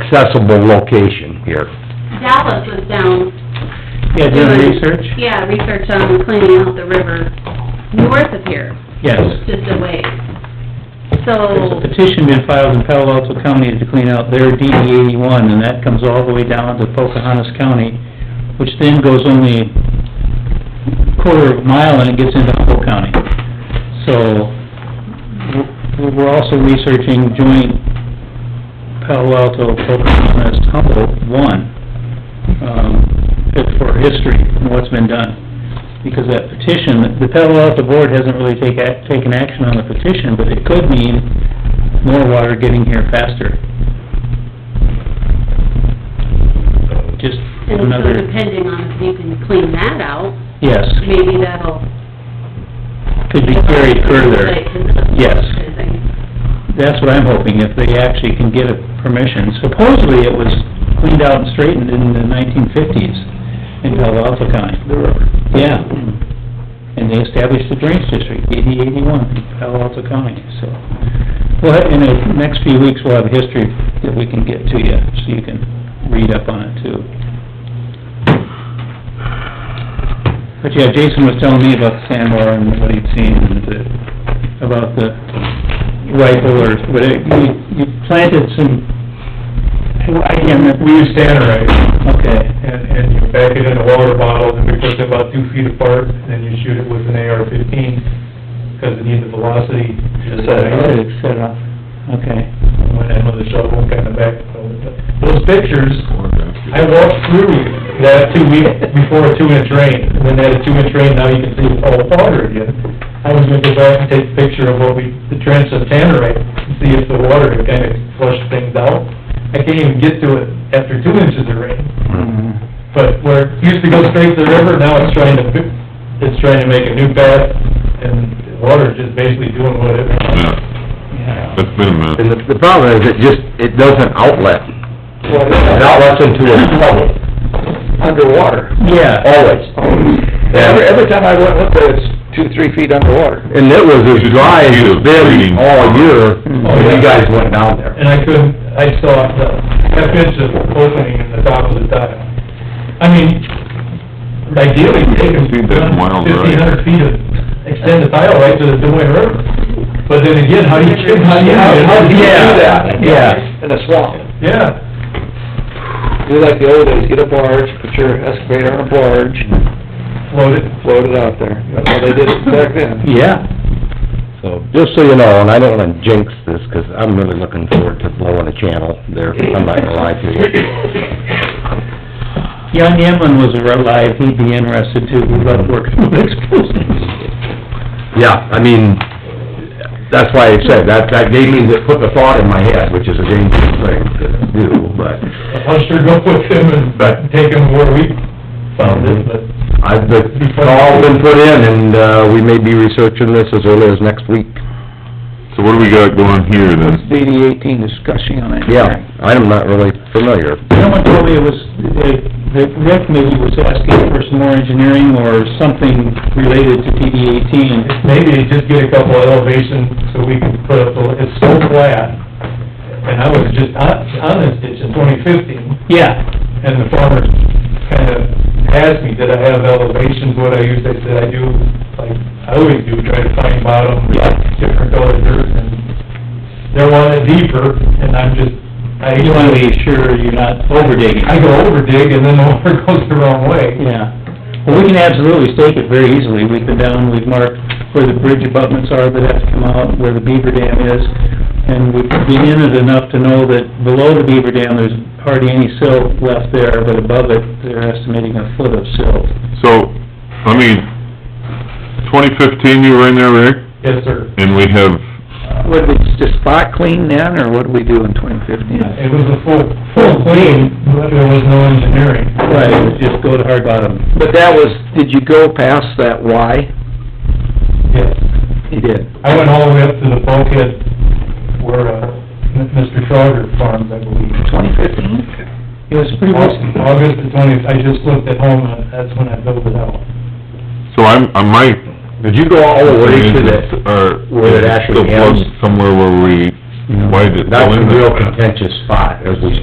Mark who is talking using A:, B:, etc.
A: accessible location here.
B: Dallas was down.
C: Yeah, doing research?
B: Yeah, research on cleaning out the river north of here,
C: Yes.
B: just a ways.
C: There's a
B: So,
C: petition been filed in Palo Alto County to clean out their DD eighty-one, and that comes all the way down to Pocahontas County, which then goes only quarter of a mile and it gets into Humboldt County. So, we're- we're also researching joint Palo Alto, Pocahontas, Humboldt, one, um, for history and what's been done because that petition, the Palo Alto Board hasn't really take, ac- taken action on the petition, but it could mean more water getting here faster. Just
B: and so
C: another,
B: depending on if you can clean that out,
C: yes,
B: maybe that'll...
C: could be carried further.
B: Like, and-
C: Yes.
B: I think.
C: That's what I'm hoping, if they actually can get a permission. Supposedly, it was cleaned out and straightened in the nineteen fifties in Palo Alto County. Yeah. And they established the drainage district, DD eighty-one, in Palo Alto County, so. Well, in the next few weeks, we'll have history that we can get to you, so you can read up on it too. But yeah, Jason was telling me about the sandbar and what he'd seen and the, about the rifle or, but it- you, you planted some, I can't remember.
D: We use standardized,
C: Okay,
D: and, and you pack it in a water bottle, and we put it about two feet apart, and then you shoot it with an AR-15, because it needs the velocity. to
C: Set
D: ignite.
C: it, set up, okay.
D: Went in with a shovel, kind of back, oh, those pictures, I walked through that two week, before a two-inch rain, and when they had a two-inch rain, now you can see all the water again. I was gonna go back and take a picture of what we, the trench of Tannerite, and see if the water had kind of flushed things out. I can't even get to it after two inches of rain.
A: Mm-hmm.
D: But where it used to go straight to the river, now it's trying to, it's trying to make a new path, and the water's just basically doing what it wants.
E: Yeah,
C: Yeah.
E: that's been a mess.
A: And the, the problem is, it just, it doesn't outlet, it outlets into a puddle. Underwater.
C: Yeah,
A: Always. Every, every time I went with it, it's two, three feet underwater. And it was as dry as it's been all year, when you guys went down there.
D: And I couldn't, I saw the half inch of opening in the top of the tile. I mean, ideally, take them
E: See that wild ride.
D: fifteen hundred feet of, extend the tile right to the Des Moines River. But then again, how do you, how do you...
C: Yeah. Yeah.
F: In a swamp.
D: Yeah.
F: Do like the old days, get a barge, put your excavator on a barge,
D: Load it.
F: float it out there. That's how they did it back then.
C: yeah.
A: So, just so you know, and I don't wanna jinx this, 'cause I'm really looking forward to blowing a channel there, I'm not gonna lie to you.
C: Young Emlyn was alive, he'd be interested too, we love working with explosives.
A: Yeah, I mean, that's why I said, that, that gave me, the- put the thought in my head, which is a dangerous thing to do, but
D: I'll sure go with them and take them where we found it, but...
A: I've, the call's been put in, and, uh, we may be researching this as early as next week.
E: So what do we got going here then?
C: DD eighteen discussion on it.
A: Yeah, I'm not really familiar.
C: Someone told me it was, the, the rec committee was asking for some more engineering or something related to DD eighteen.
D: maybe just get a couple elevation so we can put up, a- it's so flat. And I was just on, on this ditch in twenty fifteen,
C: Yeah,
D: and the farmer kind of asked me, did I have elevations, what I used, I said, I do, like, I always do, try to find bottom, different colored dirt, and they're wanting deeper, and I'm just, I,
C: you wanna be sure you're not overdigging.
D: I go over dig, and then the water goes the wrong way.
C: Yeah, well, we can absolutely stake it very easily, we've been down, we've marked where the bridge abutments are that have to come out, where the beaver dam is, and we've been in it enough to know that below the beaver dam, there's hardly any silt left there, but above it, they're estimating a foot of silt.
E: So, I mean, twenty fifteen, you were in there, Rick,
D: Yes, sir.
E: and we have,
F: What, did we just spot clean then, or what did we do in twenty fifteen?
D: It was a full, full clean, but there was no engineering.
C: Right, it was just go to hard bottom.
F: But that was, did you go past that Y?
D: Yes.
F: You did.
D: I went all the way up to the bulkhead where, uh, M- Mr. Schroder farms, I believe.
F: Twenty fifteen?
C: It was pretty much,
D: August the twentieth, I just looked at home, and that's when I built it out.
E: so I'm, I might...
A: Did you go all the way to the,
E: Or...
A: where it actually
E: Still close
A: ends?
E: Somewhere where we, why did it
A: That's
E: go
A: a
E: in
A: real
E: there?
A: contentious spot, as we